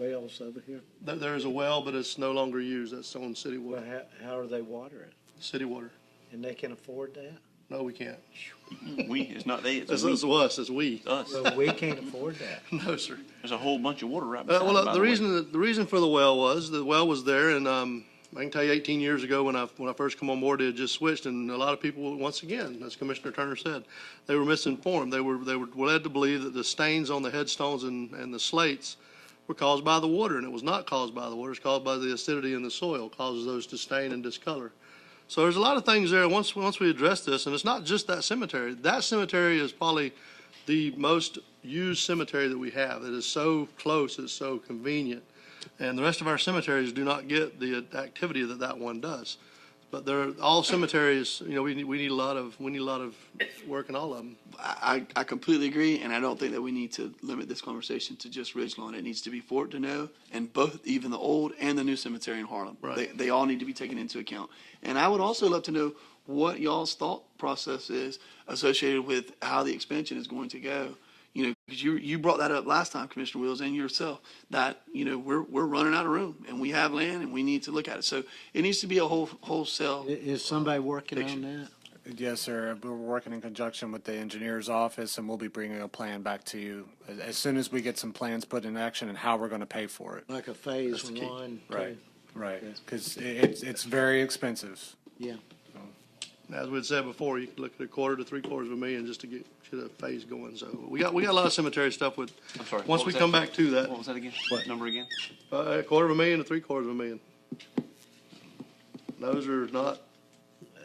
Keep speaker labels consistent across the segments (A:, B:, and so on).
A: wells over here?
B: There, there is a well, but it's no longer used. That's on city
A: Well,
B: water,
A: how, how do they water it?
B: city water.
A: And they can afford that?
B: No, we can't.
C: We, it's not they, it's
B: It's,
C: a we,
B: it's us, it's we.
C: us.
A: Well, we can't afford that.
B: No, sir.
C: There's a whole bunch of water right
B: Uh,
C: beside
B: well,
C: it,
B: uh,
C: by
B: the
C: way.
B: reason that, the reason for the well was the well was there, and um, I can tell you, 18 years ago when I when I first come on board, it had just switched, and a lot of people, once again, as Commissioner Turner said, they were misinformed. They were they were led to believe that the stains on the headstones and and the slates were caused by the water, and it was not caused by the water. It's caused by the acidity in the soil, causes those to stain and discolor. So there's a lot of things there. Once once we address this, and it's not just that cemetery. That cemetery is probably the most used cemetery that we have. It is so close, it's so convenient, and the rest of our cemeteries do not get the activity that that one does. But they're all cemeteries. You know, we need, we need a lot of we need a lot of work in all of them.
D: I, I I completely agree, and I don't think that we need to limit this conversation to just Ridgelawn. It needs to be Fort Deneau and both, even the old and the new cemetery in Harlem.
B: Right.
D: They, they all need to be taken into account. And I would also love to know what y'all's thought process is associated with how the expansion is going to go. You know, because you you brought that up last time, Commissioner Wills, and yourself that you know we're we're running out of room, and we have land, and we need to look at it. So it needs to be a whole wholesale.
A: I- Is somebody working on that?
E: Yes, sir. We're working in conjunction with the engineer's office and we'll be bringing a plan back to you as, as soon as we get some plans put in action and how we're going to pay for it.
A: Like a phase one?
E: Right.
A: two?
E: Right. Because it's, it's very expensive.
A: Yeah.
B: As we'd said before, you can look at a quarter to three quarters of a million just to get get a phase going. So we got we got a lot of cemetery stuff with.
C: I'm sorry.
B: Once
C: what
B: we
C: was that
B: come
C: again?
B: back to that,
C: What was that again?
E: What?
C: Number again?
B: Uh, a quarter of a million to three quarters of a million. Those are not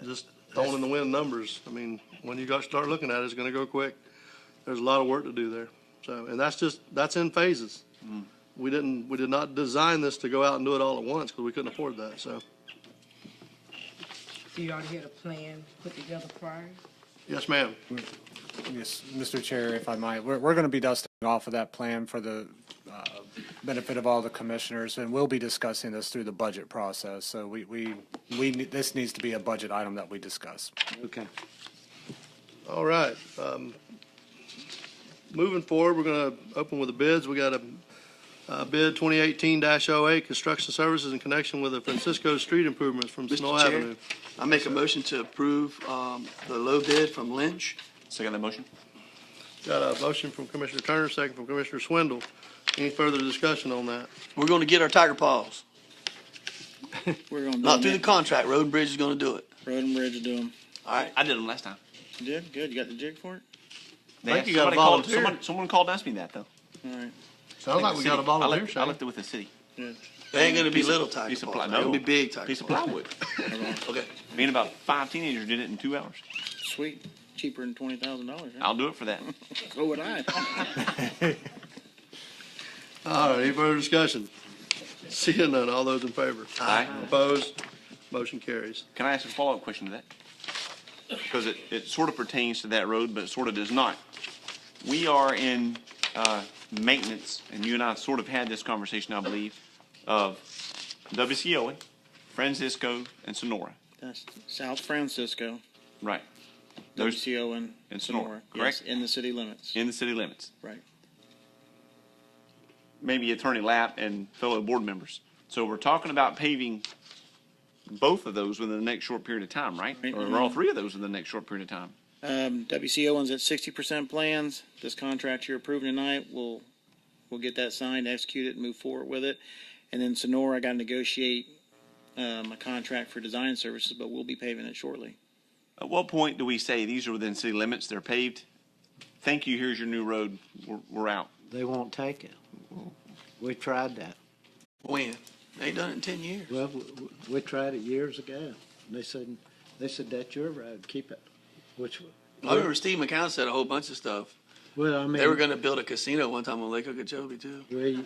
B: just thrown in the wind numbers. I mean, when you got, start looking at it, it's gonna go quick. There's a lot of work to do there. So, and that's just, that's in phases. We didn't, we did not design this to go out and do it all at once because we couldn't afford that, so.
F: So you already had a plan put together prior?
B: Yes, ma'am.
E: Yes, Mr. Chair, if I might, we're, we're going to be dusting off of that plan for the uh, benefit of all the commissioners, and we'll be discussing this through the budget process. So we, we, we, ne- this needs to be a budget item that we discuss.
A: Okay.
B: All right. um, Moving forward, we're going to open with the bids. We got a uh, bid 2018-08, construction services in connection with the Francisco Street improvements from
D: Mr.
B: Snow
D: Chair,
B: Avenue.
D: I make a motion to approve um, the low bid from Lynch.
C: Second that motion?
B: Got a motion from Commissioner Turner, second from Commissioner Swindle. Any further discussion on that?
D: We're going to get our tiger paws.
G: We're gonna do
D: Not through the
G: them.
D: contract. Road and Bridge is going to do it.
G: Road and bridge to do them.
D: All right.
C: I did them last time.
G: You did? Good. You got the jig for it?
C: They
B: I
C: asked,
B: think you gotta
C: somebody called,
B: volunteer.
C: someone, someone called and asked me that though.
G: All right.
B: Sounds like
C: The
B: we
C: city.
B: got a
C: I
B: volunteer,
C: left- I
B: Shane.
C: left it with the city.
G: Good.
D: They ain't going to be
C: Piece of-
D: little tiger
C: piece of
D: paws.
C: ply-
D: They're going to
C: no.
D: be big tiger
C: Piece of
D: paws.
C: plywood.
D: Okay.
C: Me and about five teenagers did it in two hours.
G: Sweet. Cheaper than twenty thousand dollars.
C: I'll do it for that.
G: So would I.
B: All right, any further discussion? Seeing none, all those in favor?
C: Aye.
B: Opposed? Motion carries.
C: Can I ask a follow-up question to that? Because it, it sort of pertains to that road, but it sort of does not. We are in, uh, maintenance, and you and I sort of had this conversation, I believe, of WCOA, Francisco, and Sonora,
G: That's South Francisco,
C: right? Those
G: WCO and
C: and Sonora,
G: Sonora.
C: correct?
G: Yes, in the city limits.
C: in the city limits.
G: Right.
C: maybe Attorney Lapp and fellow board members. So we're talking about paving both of those within the next short period of time, right?
G: Right.
C: Or all three of those in the next short period of time.
G: Um, WCO one's at sixty percent plans. This contract you're approving tonight, we'll, we'll get that signed, execute it, and move forward with it. And then Sonora, I gotta negotiate, um, a contract for design services, but we'll be paving it shortly.
C: At what point do we say these are within city limits, they're paved? Thank you, here's your new road, we're, we're out.
A: They won't take it. We tried that.
D: When? They ain't done it in 10 years.
A: Well, w- w- we tried it years ago. And they said, they said, that's your road, keep it. Which, w-
D: I remember Steve McCown said a whole bunch of stuff.
A: well, I mean.
D: They were going to build a casino one time on Lake Okeechobee, too.
A: we-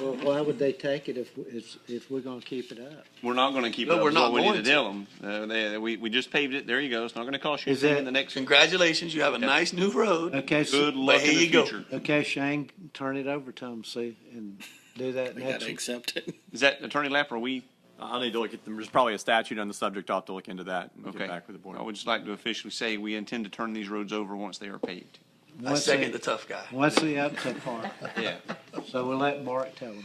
A: Well, why would they take it if, if, if we're gonna keep it up?
C: We're not gonna keep it
D: No,
C: up,
D: we're
C: is what
D: not
C: we need to
D: going to.
C: tell them. Uh, they, we, we just paved it, there you go, it's not gonna cost you
A: Is
C: anything
A: that-
C: in the next,
D: Congratulations, you have a nice new road.
A: Okay, s-
C: good luck
D: here
C: in the
D: you go.
C: future.
A: okay, Shane, turn it over to them, see, and do that
G: They gotta
A: next.
G: accept it.
C: Is that Attorney Lapp, are we?
H: I'll Uh, need to look at them. There's probably a statute on the subject. I'll have to look into that and
C: Okay.
H: get back with the board.
C: I would just like to officially say we intend to turn these roads over once they are paved.
D: I
A: Once
D: second
A: they-
D: the tough guy.
A: Once they up to par,
C: Yeah.
A: so we'll let Mark tell them.